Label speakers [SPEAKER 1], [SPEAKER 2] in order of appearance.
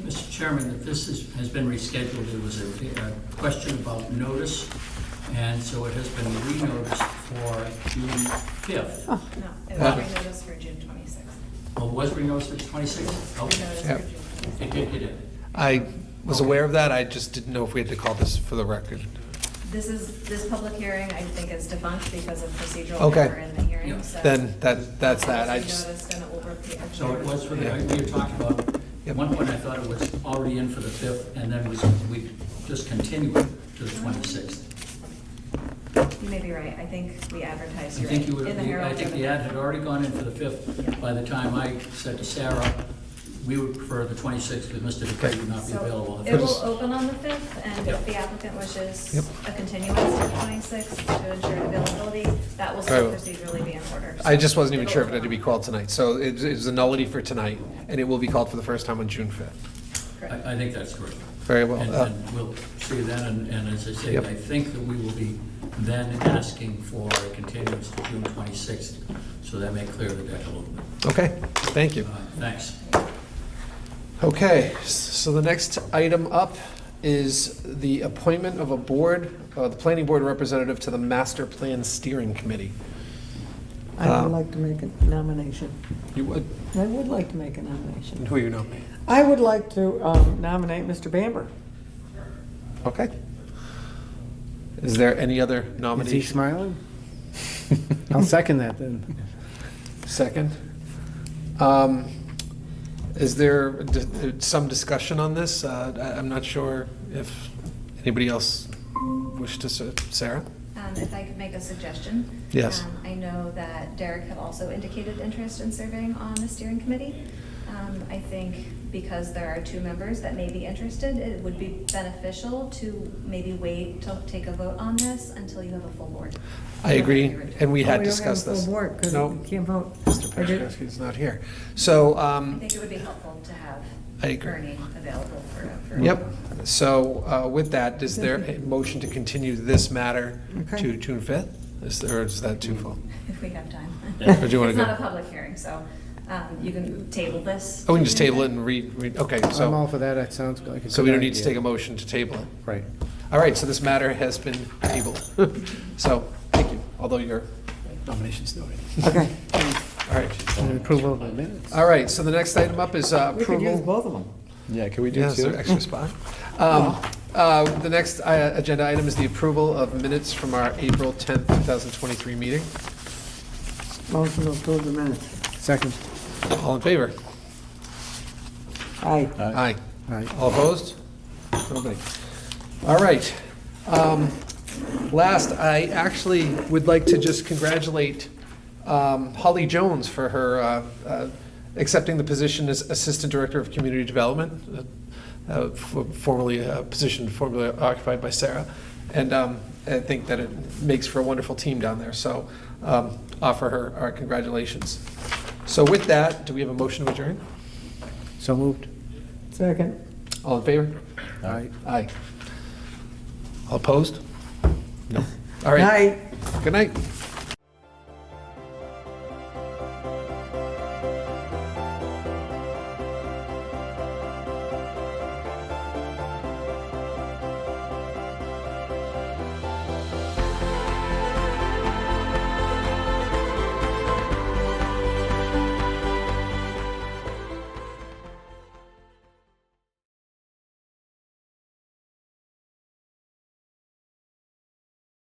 [SPEAKER 1] Mr. Chairman, that this is, has been rescheduled, it was a, a question about notice, and so it has been renoticed for June fifth.
[SPEAKER 2] Oh,
[SPEAKER 3] No, it
[SPEAKER 4] Huh?
[SPEAKER 3] was renoticed for June twenty-sixth.
[SPEAKER 1] Well, was renoticed as twenty-sixth? Oh,
[SPEAKER 3] Renoticed
[SPEAKER 4] Yep.
[SPEAKER 3] for June twenty-sixth.
[SPEAKER 1] it did, it did.
[SPEAKER 4] I was aware of that, I just didn't know if we had to call this for the record.
[SPEAKER 3] This is, this public hearing, I think, is defunct because of procedural
[SPEAKER 4] Okay.
[SPEAKER 3] error in the
[SPEAKER 1] Yeah.
[SPEAKER 3] hearing, so.
[SPEAKER 4] Then that, that's that, I
[SPEAKER 3] It was
[SPEAKER 4] just,
[SPEAKER 3] Noticed and over.
[SPEAKER 1] So it was for the,
[SPEAKER 4] Yeah.
[SPEAKER 1] we were talking about, at
[SPEAKER 4] Yep.
[SPEAKER 1] one point I thought it was already in for the fifth, and then was, we just continued to the twenty-sixth.
[SPEAKER 3] You may be right, I think we
[SPEAKER 1] I
[SPEAKER 3] advertised, you're right,
[SPEAKER 1] think you would,
[SPEAKER 3] in the Herald.
[SPEAKER 1] I think the ad had already gone in for the fifth, by the time I said to Sarah, we would prefer the twenty-sixth, because Mr. Dupree would not be
[SPEAKER 3] So
[SPEAKER 1] available.
[SPEAKER 3] It will open on the fifth, and
[SPEAKER 1] Yep.
[SPEAKER 3] if the applicant wishes
[SPEAKER 4] Yep.
[SPEAKER 3] a continuance to the twenty-sixth to ensure availability, that will
[SPEAKER 4] All
[SPEAKER 3] still
[SPEAKER 4] right.
[SPEAKER 3] procedurally be in order.
[SPEAKER 4] Oh. I just wasn't even
[SPEAKER 3] It'll
[SPEAKER 4] sure if it
[SPEAKER 3] open
[SPEAKER 4] had to be
[SPEAKER 3] on-
[SPEAKER 4] called tonight, so it's, it's a nullity for tonight, and it will be called for the first time on June fifth.
[SPEAKER 3] Correct.
[SPEAKER 1] I, I think that's correct.
[SPEAKER 4] Very well,
[SPEAKER 1] And-
[SPEAKER 4] uh,
[SPEAKER 1] And we'll see then, and, and as I say,
[SPEAKER 4] Yep.
[SPEAKER 1] I think that we will be then asking for a continuance to June twenty-sixth, so that may clear the deck a little bit.
[SPEAKER 4] Okay, thank you.
[SPEAKER 1] Uh, Thanks.
[SPEAKER 4] Okay, s- so the next item up is the appointment of a board, uh, the planning board representative to the master plan steering committee.
[SPEAKER 2] I
[SPEAKER 4] Uh,
[SPEAKER 2] would like to make a nomination.
[SPEAKER 4] You would,
[SPEAKER 2] I would like to make a nomination.
[SPEAKER 4] who are you nominating?
[SPEAKER 2] I would like to um, nominate Mr. Bamber.
[SPEAKER 4] Okay. Is there any other
[SPEAKER 5] Is he
[SPEAKER 4] nomination?
[SPEAKER 5] smiling? I'll second that then.
[SPEAKER 4] Second. Um, Is there d- d- some discussion on this? Uh, I- I'm not sure if anybody else wished to, s- Sarah?
[SPEAKER 3] Um, If I could make a suggestion?
[SPEAKER 4] Yes.
[SPEAKER 3] Um, I know that Derek had also indicated interest in serving on the steering committee. Um, I think because there are two members that may be interested, it would be beneficial to maybe wait to take a vote on this until you have a full board.
[SPEAKER 4] I agree, and
[SPEAKER 2] Oh, we
[SPEAKER 4] we had
[SPEAKER 2] don't have a
[SPEAKER 4] discussed
[SPEAKER 2] full
[SPEAKER 4] this.
[SPEAKER 2] board, 'cause
[SPEAKER 4] No,
[SPEAKER 2] we can't vote.
[SPEAKER 4] Mr.
[SPEAKER 2] I did-
[SPEAKER 4] Pachkovski's not here. So,
[SPEAKER 3] I
[SPEAKER 4] um,
[SPEAKER 3] think it would be helpful to have
[SPEAKER 4] I agree.
[SPEAKER 3] Bernie available for. for-
[SPEAKER 4] yep, so uh, with that, is there a motion to continue this matter
[SPEAKER 2] Okay.
[SPEAKER 4] to June 5th? Is there, or is that too full?
[SPEAKER 3] If we have time.
[SPEAKER 1] Yeah.
[SPEAKER 4] Or do you wanna
[SPEAKER 3] It's
[SPEAKER 4] go-
[SPEAKER 3] not a public hearing, so um, you can table this.
[SPEAKER 4] Oh, we can just table it and read, read- okay,
[SPEAKER 5] I'm all
[SPEAKER 4] so,
[SPEAKER 5] for that, that sounds like a
[SPEAKER 4] so we
[SPEAKER 5] good
[SPEAKER 4] don't need to
[SPEAKER 5] idea.
[SPEAKER 4] take a motion to table it?
[SPEAKER 5] Right.
[SPEAKER 4] All right, so this matter has been tabled. So, thank you, although your nomination's noted.
[SPEAKER 2] Okay.
[SPEAKER 4] All right.
[SPEAKER 5] And approval of the minutes.
[SPEAKER 4] All right, so the next item up is uh,
[SPEAKER 2] We could use
[SPEAKER 4] approval.
[SPEAKER 2] both of them.
[SPEAKER 6] Yeah, can we do
[SPEAKER 4] Yeah, is there
[SPEAKER 6] two?
[SPEAKER 4] extra spot? Um, uh, The next uh, agenda item is the approval of minutes from our April 10th, 2023 meeting.
[SPEAKER 2] Motion to approve the minutes.
[SPEAKER 5] Second.
[SPEAKER 4] All in favor?
[SPEAKER 2] Aye.
[SPEAKER 4] Aye.
[SPEAKER 5] Aye.
[SPEAKER 4] All opposed? Nobody. All right. Um, Last, I actually would like to just congratulate um, Holly Jones for her uh, uh, accepting the position as Assistant Director of Community Development, uh, uh, for- formerly a position formerly occupied by Sarah. And um, I think that it makes for a wonderful team down there, so um, offer her our congratulations. So with that, do we have a motion to adjourn?
[SPEAKER 5] So moved.
[SPEAKER 2] Second.
[SPEAKER 4] All in favor?
[SPEAKER 5] Aye.
[SPEAKER 4] Aye. All opposed? No. All right.
[SPEAKER 2] Aye.
[SPEAKER 4] Good night.